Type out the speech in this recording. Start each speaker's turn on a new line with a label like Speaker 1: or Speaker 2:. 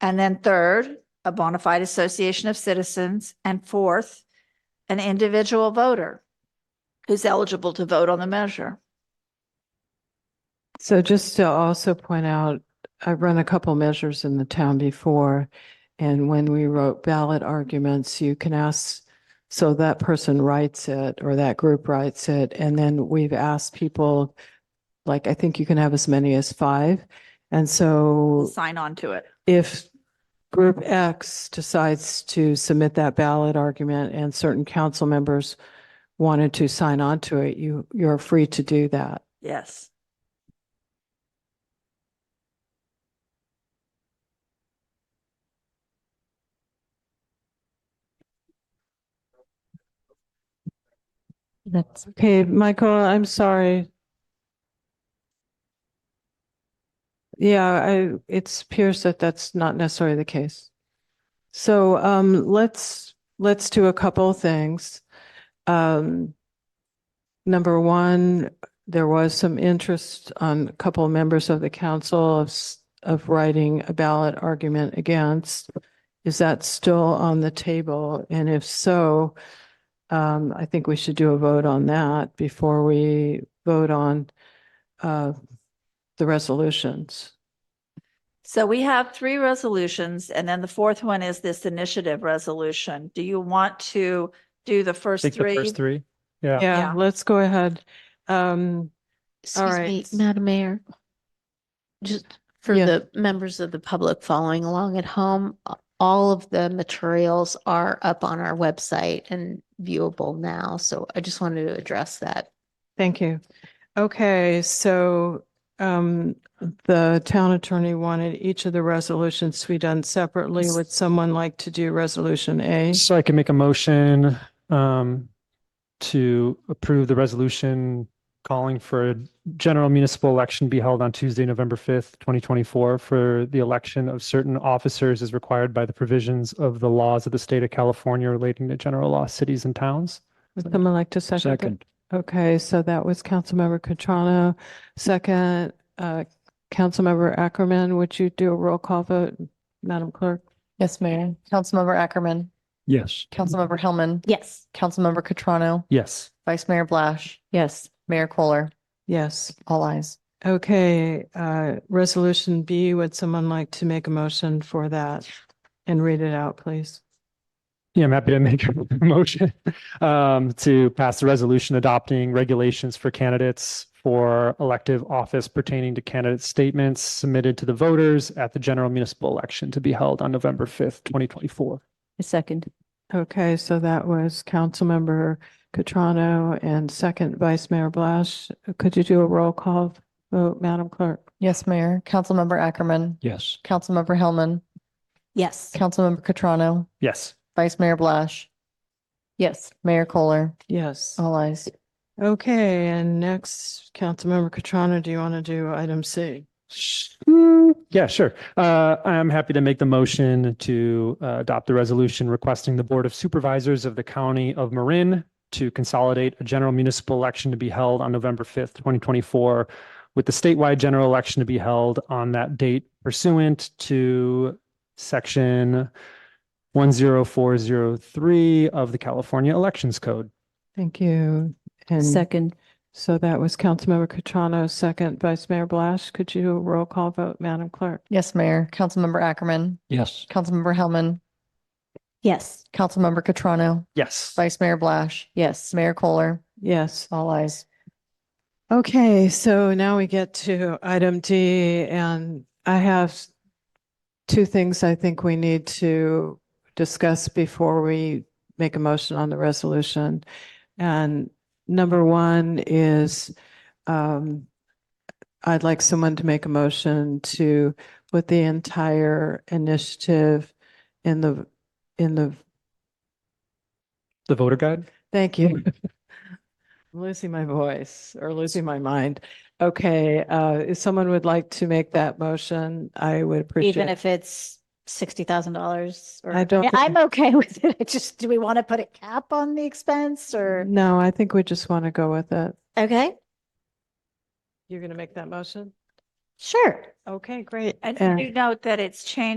Speaker 1: And then third, a bona fide association of citizens. And fourth, an individual voter who's eligible to vote on the measure.
Speaker 2: So just to also point out, I've run a couple measures in the town before. And when we wrote ballot arguments, you can ask, so that person writes it or that group writes it. And then we've asked people, like, I think you can have as many as five. And so
Speaker 1: Sign on to it.
Speaker 2: if group X decides to submit that ballot argument and certain council members wanted to sign on to it, you, you're free to do that.
Speaker 1: Yes.
Speaker 3: That's,
Speaker 2: Okay, Michael, I'm sorry. Yeah, I, it appears that that's not necessarily the case. So um, let's, let's do a couple of things. Um, Number one, there was some interest on a couple of members of the council of, s- of writing a ballot argument against. Is that still on the table? And if so, um, I think we should do a vote on that before we vote on, uh, the resolutions.
Speaker 1: So we have three resolutions and then the fourth one is this initiative resolution. Do you want to do the first
Speaker 4: Take the
Speaker 1: three?
Speaker 4: first three. Yeah.
Speaker 1: Yeah.
Speaker 2: Yeah, let's go ahead. Um,
Speaker 3: excuse me,
Speaker 2: right.
Speaker 3: Madam Mayor. Just for
Speaker 2: Yeah.
Speaker 3: the members of the public following along at home, a- all of the materials are up on our website and viewable now. So I just wanted to address that.
Speaker 2: thank you. Okay, so, um, the town attorney wanted each of the resolutions to be done separately. Would someone like to do resolution A?
Speaker 4: So I can make a motion um, to approve the resolution calling for a general municipal election be held on Tuesday, November 5th, 2024 for the election of certain officers as required by the provisions of the laws of the state of California relating to general law cities and towns.
Speaker 2: Would someone like to second? that? Okay, so that was Councilmember Cutrano. Second, uh, Councilmember Ackerman, would you do a roll call vote, Madam Clerk?
Speaker 5: Yes, Mayor. Councilmember Ackerman,
Speaker 4: Yes.
Speaker 5: Councilmember Hellman,
Speaker 3: Yes.
Speaker 5: Councilmember Catrano,
Speaker 4: Yes.
Speaker 5: Vice Mayor Blash,
Speaker 2: Yes.
Speaker 5: Mayor Kohler,
Speaker 2: Yes.
Speaker 5: all eyes.
Speaker 2: Okay, uh, Resolution B, would someone like to make a motion for that? And read it out, please.
Speaker 4: Yeah, I'm happy to make a motion um, to pass the resolution adopting regulations for candidates for elective office pertaining to candidate statements submitted to the voters at the general municipal election to be held on November 5th, 2024.
Speaker 2: Okay, so that was Councilmember Cutrano and second Vice Mayor Blash. Could you do a roll call vote, Madam Clerk?
Speaker 5: Yes, Mayor. Councilmember Ackerman,
Speaker 4: Yes.
Speaker 5: Councilmember Hellman,
Speaker 1: Yes.
Speaker 5: Councilmember Catrano,
Speaker 4: Yes.
Speaker 5: Vice Mayor Blash. Yes. Mayor Kohler,
Speaker 2: Yes.
Speaker 5: all eyes.
Speaker 2: Okay, and next, Councilmember Catrona, do you want to do item C?
Speaker 4: Sh- mm, Yeah, sure. Uh, I'm happy to make the motion to uh, adopt the resolution requesting the Board of Supervisors of the County of Marin to consolidate a general municipal election to be held on November 5th, 2024, with the statewide general election to be held on that date pursuant to Section 10403 of the California Elections Code.
Speaker 2: Thank you. And
Speaker 6: Second,
Speaker 2: so that was Councilmember Catrona, second Vice Mayor Blash. Could you do a roll call vote, Madam Clerk?
Speaker 5: Yes, Mayor. Councilmember Ackerman,
Speaker 4: Yes.
Speaker 5: Councilmember Hellman,
Speaker 6: yes.
Speaker 5: Councilmember Catrano,
Speaker 4: Yes.
Speaker 5: Vice Mayor Blash. Yes. Mayor Kohler,
Speaker 2: Yes.
Speaker 5: all eyes.
Speaker 2: Okay, so now we get to item D, and I have two things I think we need to discuss before we make a motion on the resolution. And number one is, um, I'd like someone to make a motion to put the entire initiative in the, in the,
Speaker 4: The voter guide?
Speaker 2: thank you. I'm losing my voice or losing my mind. Okay, uh, if someone would like to make that motion, I would appreciate.
Speaker 6: Even if it's sixty thousand dollars or.
Speaker 2: I don't
Speaker 6: Yeah,
Speaker 2: think-
Speaker 6: I'm okay with it. I just, do we want to put a cap on the expense or?
Speaker 2: No, I think we just want to go with it.
Speaker 6: Okay,
Speaker 2: You're going to make that motion?
Speaker 6: sure.
Speaker 2: Okay, great.
Speaker 1: And
Speaker 2: And-
Speaker 1: do note that it's changed